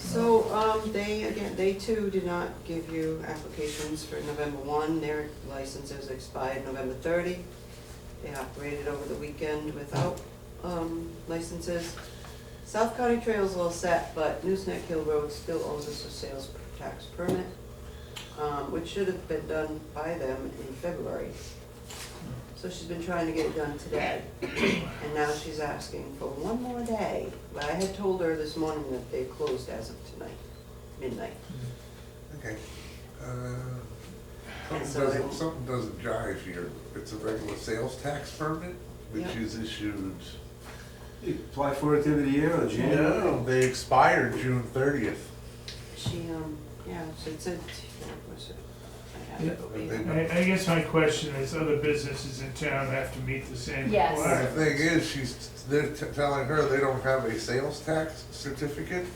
So, um, they, again, they too did not give you applications for November one, their licenses expired November thirty. They operated over the weekend without, um, licenses. South County Trails all set, but Newsnack Hill Road still owes us a sales tax permit, um, which should have been done by them in February. So she's been trying to get it done today, and now she's asking for one more day. But I had told her this morning that they closed as of tonight, midnight. Okay. Uh, And Something so they- doesn't, something doesn't jive here. It's a regular sales tax permit, which Yep. is issued. You Apply for it the end of the year or January? No, they expire June thirtieth. She, um, yeah, she said, what was it? I have it over here. I, I guess my question is, other businesses in town have to meet the same Yes. The requirement. thing is, she's, they're t- telling her they don't have a sales tax certificate.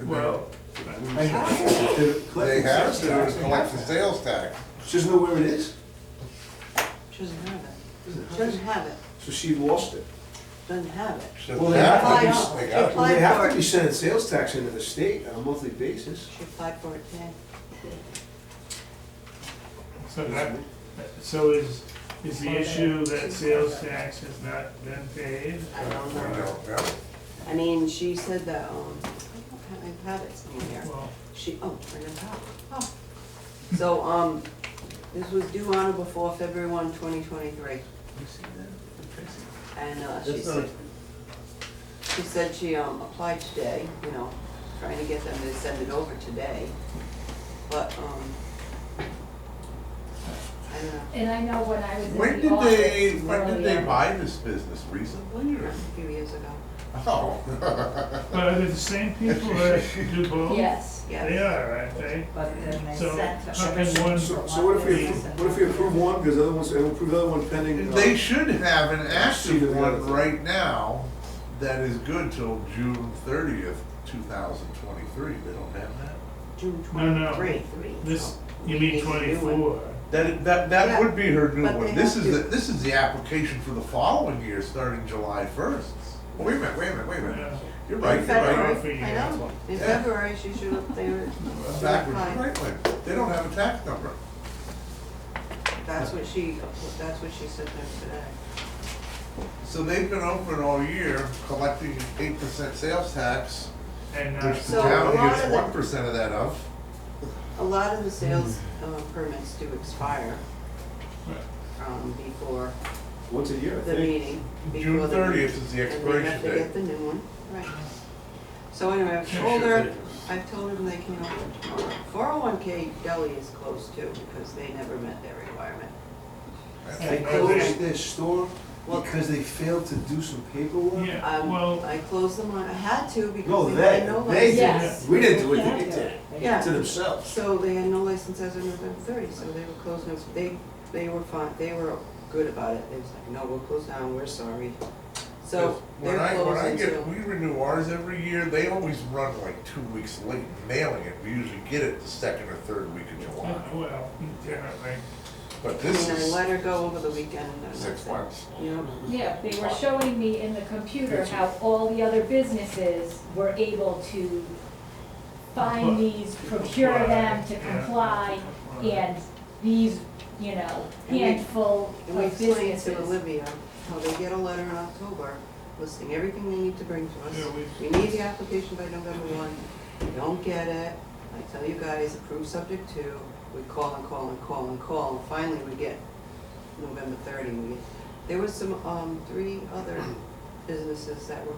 And they- Well, I have to. To collect They the have sales to tax, they collect the have to. sales tax. She doesn't know where it is? She doesn't have it. She doesn't have it, So she lost it. doesn't have it. She doesn't Well, they have have to. to- They They got it. Well, Apply they have for to it. be sending sales tax into the state on a monthly basis. She applied for it today. so that, so is, is the issue that sales tax has not been paid? I don't I know. don't know. I mean, she said that, um, I don't have, I have it somewhere. Well, She, oh, right on top, oh. So, um, this was due on or before February one, twenty twenty-three, and, uh, she That's not- said, she said she, um, applied today, you know, trying to get them to send it over today, but, um, I don't know. And I know when I was in the When office did they, earlier. when did they buy this business? Recently or? A few years ago, Oh. but are they the same people that do both? Yes. They yes, are, aren't they? But then they So, sent to. how can one- So, so what if we, appro- what if we approve one, because the other one's, and we approve the other one pending? uh, They should have an active one Yeah. right now that is good till June thirtieth, two thousand twenty-three. They don't have that? June No, no. twenty-three. This, you mean twenty-four? That, that, Yeah, that would be her new but they one. This have is, the to- this is the application for the following year, starting July first. Wait a minute, wait a minute, uh, wait a minute. Yeah. You're right, In you're right. February, I know, in Yeah. February, she should have, they were, Backwards, right, way. they don't have a tax number. that's what she, that's what she said to them today. So they've been open all year, collecting eight percent sales tax, And, uh, which the So a town lot gets of the- one percent of that of. A lot of the sales Hmm. uh, permits do expire um, before Once a year, I the think. meeting. June before the thirtieth meeting, is the And we expiration have to get date. the new one, right. So anyway, I've told her, I've told them they can open tomorrow. Four oh one K deli is closed too, because they never met their requirement. They closed their store because they failed to do some paperwork? Yeah, Um, well, I closed them on, I had to No, because they they, had no they license. Yes. did. We didn't do it, they did. Yeah. To themselves. So they had no license as of November thirty, so they were closed, no- they, they were fine, they were good about it, they was like, no, we'll close down, we're sorry. So When they're I, when closed I until, get, we renew ours every year, they always run like two weeks late mailing it. We usually get it the second or third week of July. yeah, well, definitely. But and this I is let her go over the weekend and that's six it. months. You know, Yeah, they were showing me in the computer how all the other businesses were able to find these, procure them to comply, and these, you know, handful and we of explained to businesses. Olivia how they get a letter in October listing everything they need to bring to Yeah, us. We we- need the application by November one, we don't get it, I tell you guys, approve subject two, we call and call and call and call, and finally we get November thirty, we, there was some, um, three other businesses that were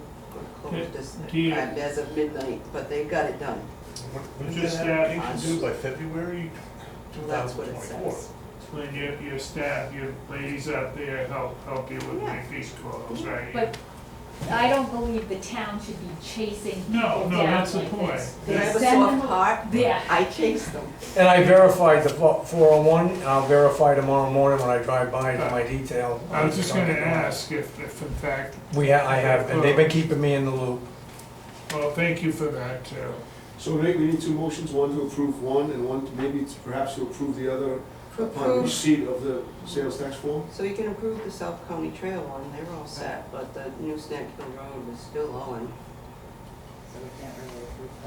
gonna Yeah, close this, do you- at- as of midnight, but they got it done, When Just does that that- application due by February two that's thousand what it twenty-four? says. When your, your staff, your ladies out there help, help you with Yeah. make these calls, right? But I don't believe the town should be chasing people No, down no, that's the like point. this. Did I They have a send soft them- heart? Yeah. I chased them. And I verified the fo- 401, and I'll verify tomorrow morning when I drive by to my detail. I was just gonna ask if, if in fact, We, ha- I have, and they've been keeping me in the loop. well, thank you for that too. So we we need two motions, one to approve one and one to maybe to- perhaps to approve the other upon Approve, receipt of the sales tax form? so you can approve the South County Trail one, they're all set, but the new Snack Hill Road is still owing. So we can't really approve